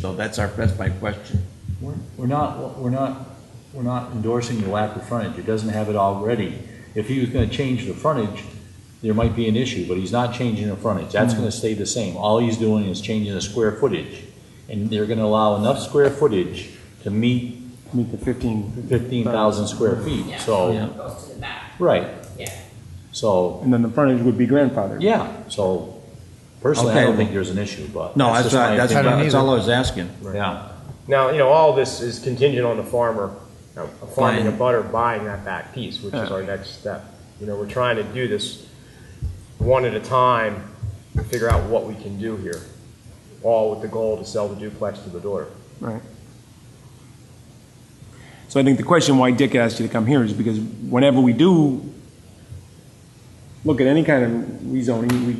So that's our, that's my question. We're we're not, we're not, we're not endorsing the lack of frontage, it doesn't have it already. If he was gonna change the frontage, there might be an issue, but he's not changing the frontage, that's gonna stay the same. All he's doing is changing the square footage, and they're gonna allow enough square footage to meet meet the 15, fifteen thousand square feet, Yeah. so, Goes to the back, right, yeah. so, and then the frontage would be grandfathered. yeah, so personally, I Okay. don't think there's an issue, but. No, that's that's just not, my that's, opinion. not- that's all I was asking. Yeah, Now, you know, all this is contingent on the farmer, a farming a Buying. butter buying that back piece, which is our next step. You know, we're trying to do this one at a time, and figure out what we can do here, all with the goal to sell the duplex to the daughter. Right. So I think the question why Dick asked you to come here is because whenever we do look at any kind of rezoning, we,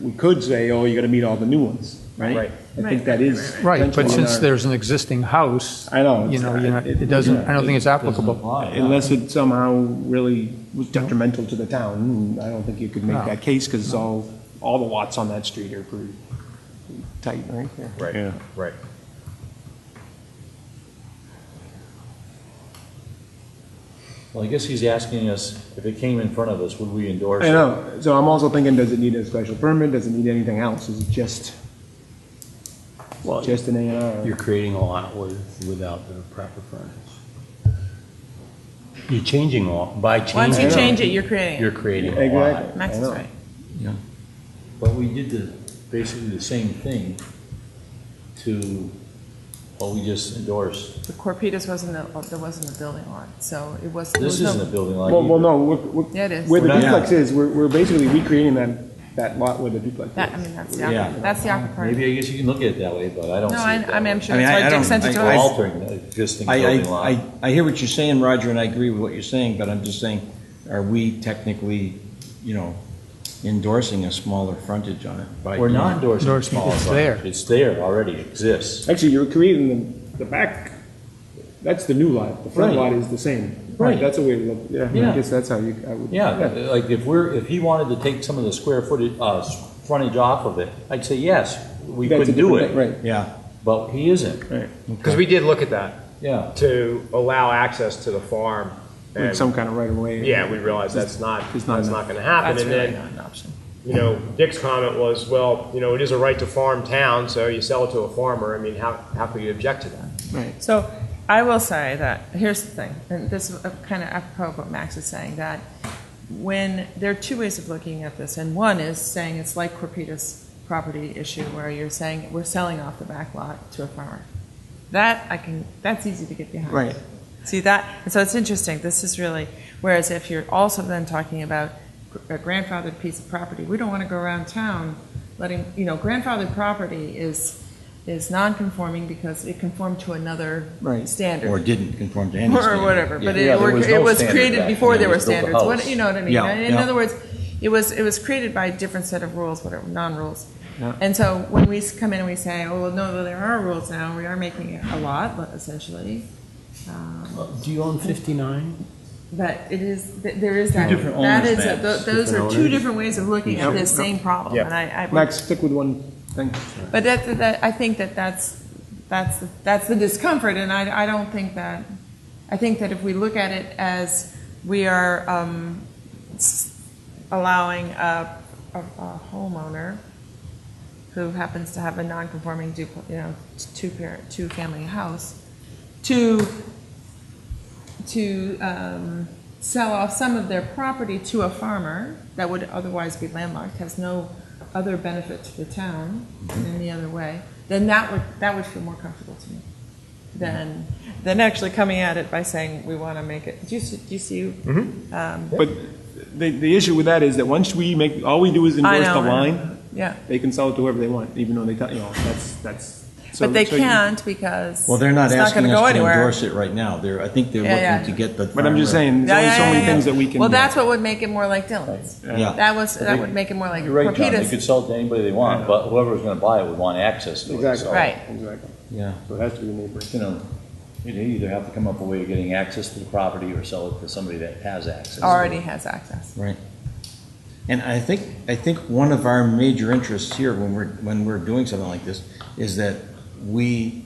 we could say, oh, you gotta meet all the new ones, right? Right. I think that is. Right, but potentially since our- there's an existing house. I know, You it's- know, you're not- it- it doesn't, I don't think it's doesn't applicable. apply, yeah. Unless it somehow really was detrimental to the town, I don't think you could make No. that case, because all, all the lots on that street are pretty tight, right? Yeah. Right, right. well, I guess he's asking us, if it came in front of us, would we endorse I it? know, so I'm also thinking, does it need a special permit, does it need anything else, is it just, just an A and You're R? creating a lot with, without the proper furnace. You're changing a lot, by changing. Once you Yeah. change it, you're creating You're it. creating a lot. Exactly. Max I is know. right. But we did the, basically the same thing to what we just endorsed. The Corpitas wasn't, a- there wasn't a building lot, so it was. there This was no- isn't a building lot Well, well, either. no, we're- Yeah, it we're- is. where the We're not- duplex is, we're, we're basically recreating that, that lot where the duplex That, I is. mean, that's the, Yeah. awkward- that's the awkward part. Maybe I guess you can look at it that way, but I don't see No, it I, that I mean, I'm way. sure I mean, I- that's I why don't Dick sent it think to We're I- us. altering the existing I, building I, lot. I, I hear what you're saying, Roger, and I agree with what you're saying, but I'm just saying, are we technically, you know, endorsing a smaller frontage on it? by We're doing not it? endorsing the Endorsing, small it's lot. there. It's there, already exists. Actually, you're creating the, the back, that's the new lot, the front Right. lot is the same. Right. That's a way to look, yeah, Yeah. I guess that's how you, I would. Yeah, like if we're, if he wanted to take some of the square footage, uh, frontage off of it, I'd say yes, we That's a could do different it. thing, Right. Yeah. But he isn't, Because we did look at that, yeah. to allow access to the farm. Like And, some kind of right of way. yeah, we realized that's not, It's not that's not gonna happen. That's And really then, not an option. you know, Dick's comment was, well, you know, it is a right to farm town, so you sell it to a farmer. I mean, how, how could you object to that? So I will say that, here's the thing, and this is kind of apropos of what Max is saying, that when, there are two ways of looking at this, and one is saying it's like Corpita's property issue where you're saying, we're selling off the back lot to a farmer. That I can, that's easy to get behind. Right. See that, and so it's interesting, this is really, whereas if you're also then talking about gr- a grandfathered piece of property, we don't want to go around town letting, you know, grandfathered property is, is non-conforming because it conformed to another Right. standard. Or didn't conform to any standard. Or whatever, but Yeah. it, there or was it no was standard created back before when there they were built the standards, what, house. you know what I mean? Yeah, In yeah. other words, it was, it was created by a different set of rules, whatever, non-rules. Yeah. And so when we s- come in and we say, oh, well, no, there are rules now, we are making it a lot, essentially, um, Uh, Do you own 59? but it is, th- there is that. different That owners is, a- maps, tho- those are different two owners. different ways of looking at this same problem, Yeah. and I, I. would- Max, stick with one thing. But that, that, I think that that's, that's, the- that's the discomfort, and I, I don't think that, I think that if we look at it as we are um, s- allowing a, a a homeowner who happens to have a non-conforming duplex, you know, two-parent, two-family house, to, to um, sell off some of their property to a farmer that would otherwise be landlocked, has no other benefit to the town in any other way, then that would, that would feel more comfortable to me than, than actually coming at it by saying, we want to make it, do you, see- do you see? um, But the, the issue with that is that once we make, all we do is I endorse know, the I know. line, Yeah, they can sell it to whoever they want, even though they, tell- you know, that's, that's. so- but they so you- can't because. Well, they're not it's asking gonna go us to anywhere. endorse it right now. They're, I think they're Yeah, yeah. looking to get the. But I'm just farmer- saying, there's Yeah, only yeah, so yeah, many yeah. things that we can. Well, that's what would make it more like Dylan's. Yeah. That was, think- that would make it more like You're right, John, they Corpita's. could sell it to anybody they want, but whoever's gonna buy it would want access to it, Exactly. so. Right. Exactly, Yeah. so it has to be neighbors. You know, you either have to come up with a way of getting access to the property or sell it to somebody that has access. already has access. Right. And I think, I think one of our major interests here when we're, when we're doing something like this is that we